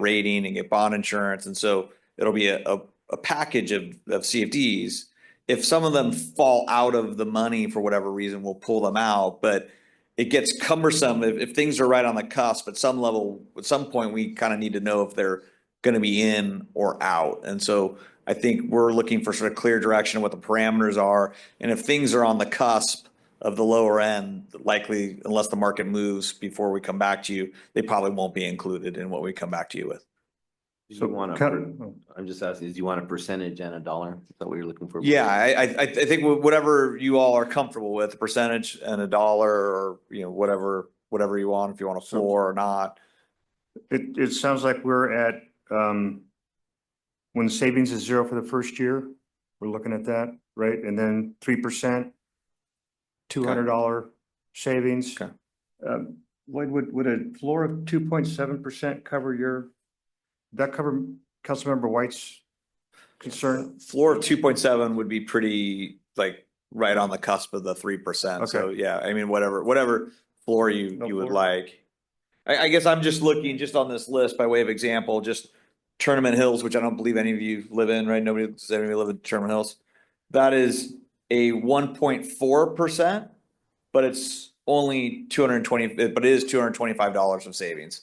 rating and get bond insurance. And so it'll be a, a, a package of, of CFDs. If some of them fall out of the money for whatever reason, we'll pull them out, but it gets cumbersome if, if things are right on the cusp, at some level, at some point, we kind of need to know if they're gonna be in or out. And so I think we're looking for sort of clear direction of what the parameters are. And if things are on the cusp of the lower end, likely unless the market moves before we come back to you, they probably won't be included in what we come back to you with. Do So you want cut- to, oh, I'm just asking, do you want a percentage and a dollar? Is that what you're looking for? Yeah, I, I, I I think wh- whatever you all are comfortable with, a percentage and a dollar or, you know, whatever, whatever you want, if you want a floor or not. It, it sounds like we're at, um, when savings is zero for the first year, we're looking at that, right? And then three percent, two hundred dollar savings. Okay. Um, Lloyd, would, would a floor of two point seven percent cover your, that cover Councilmember White's concern? Floor of two point seven would be pretty, like, right on the cusp of the three percent. So, yeah, I mean, whatever, whatever floor you, No you would floor. like. I, I guess I'm just looking, just on this list by way of example, just Tournament Hills, which I don't believe any of you live in, right? Nobody, does anybody live in Tournament Hills? That is a one point four percent, but it's only two hundred and twenty, but it is two hundred and twenty-five dollars of savings.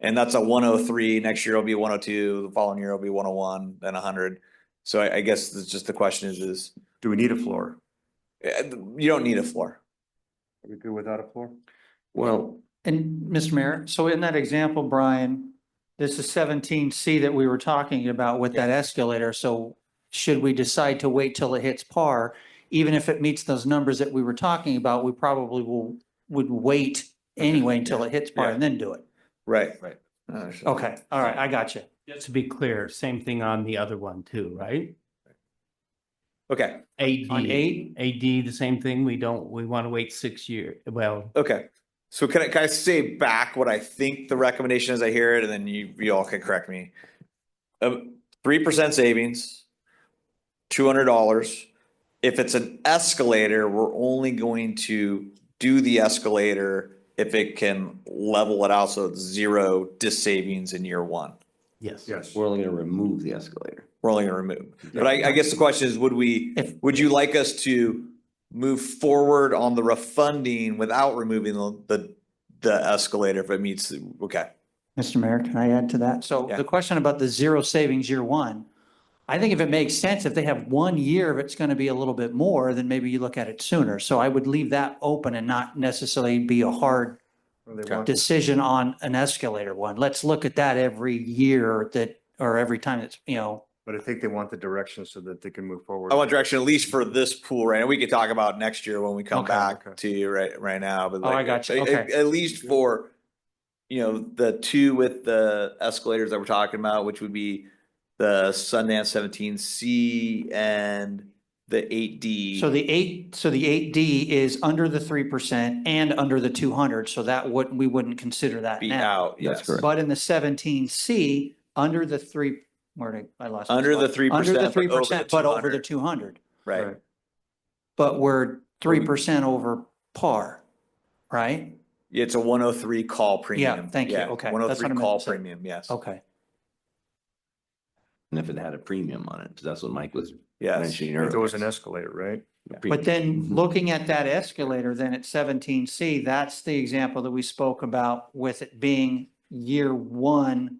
And that's a one oh three, next year it'll be one oh two, the following year it'll be one oh one, then hundred. So I, I guess it's just the question is, is, Do we need a floor? eh, you don't need a floor. Are we good without a floor? Well, And Mr. Mayor, so in that example, Brian, this is seventeen C that we were talking about with that escalator. So should we decide to wait till it hits par, even if it meets those numbers that we were talking about, we probably will, would wait anyway until it hits par Yeah. and then do it. Right. Uh, Right. Okay, all right, I got you. Just to be clear, same thing on the other one too, right? Okay, AD. On eight? AD, the same thing. We don't, we want to wait six year, well, okay. So can I, can I say back what I think the recommendation is? I hear it and then you, you all can correct me. Um, three percent savings, two hundred dollars. If it's an escalator, we're only going to do the escalator if it can level it out. So it's zero dis savings in year one. yes. Yes. we're only gonna remove the escalator. we're only gonna remove. But I, I guess the question is, would we, If- would you like us to move forward on the refunding without removing the, the, the escalator if it meets, the- okay, Mr. Mayor, can I add to that? So Yeah. the question about the zero savings year one, I think if it makes sense, if they have one year, if it's going to be a little bit more, then maybe you look at it sooner. So I would leave that open and not necessarily be a hard Or they Okay. want- decision on an escalator one. Let's look at that every year that, or every time it's, you know, But I think they want the direction so that they can move forward. I want direction at least for this pool, right? And we could talk about next year when we come Okay. back to you right, right now, but Oh, I like, got you. at- at- At least for, you know, the two with the escalators that we're talking about, which would be the Sundance seventeen C and the eight D. so the eight, so the eight D is under the three percent and under the two hundred. So that wouldn't, we wouldn't consider that Be now. out, That's yes. correct. But in the seventeen C, under the three, where did I I lost? my Under the spot. 3%, Under but the over three the percent, but over 200. the two hundred. Right, But we're three percent over par, right? Yeah, It's a one oh three call premium. thank you. Okay, that's One oh what I three meant to call say. premium, yes. Okay. And if it had a premium on it, 'cause that's what Mike was Yes. mentioning If earlier. there was an escalator, right? a But premium. then Mhm. looking at that escalator then at seventeen C, that's the example that we spoke about with it being year one,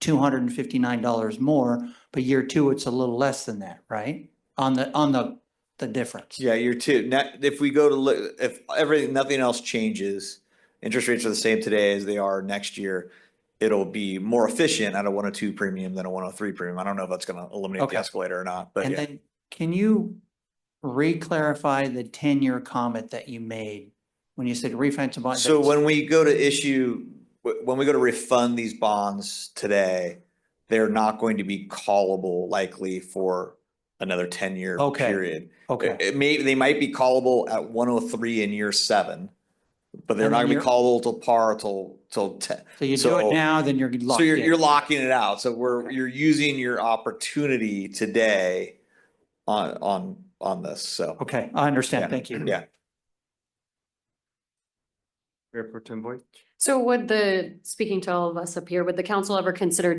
two hundred and fifty-nine dollars more, but year two, it's a little less than that, right? On the, on the, the difference. Yeah, you're two. Now, if we go to look, if everything, nothing else changes, interest rates are the same today as they are next year. It'll be more efficient at a one oh two premium than a one oh three premium. I don't know if that's gonna eliminate the Okay. escalator or not, but And yeah. then can you re-clarify the ten-year comment that you made when you said refinance a bond? So when we go to issue, wh- when we go to refund these bonds today, they're not going to be callable likely for another ten year Okay. period. Okay. It it may, they might be callable at one oh three in year seven, but they're And not then gonna be you're- callable till par till, till ten. So you do so- it now, then you're So locked you're, in. you're locking it out. So we're, you're using your opportunity today on, on, on this, so. Okay, I Yeah. understand. Thank you. Yeah, Mayor Pro Tem Boyd? So would the, speaking to all of us up here, would the council ever consider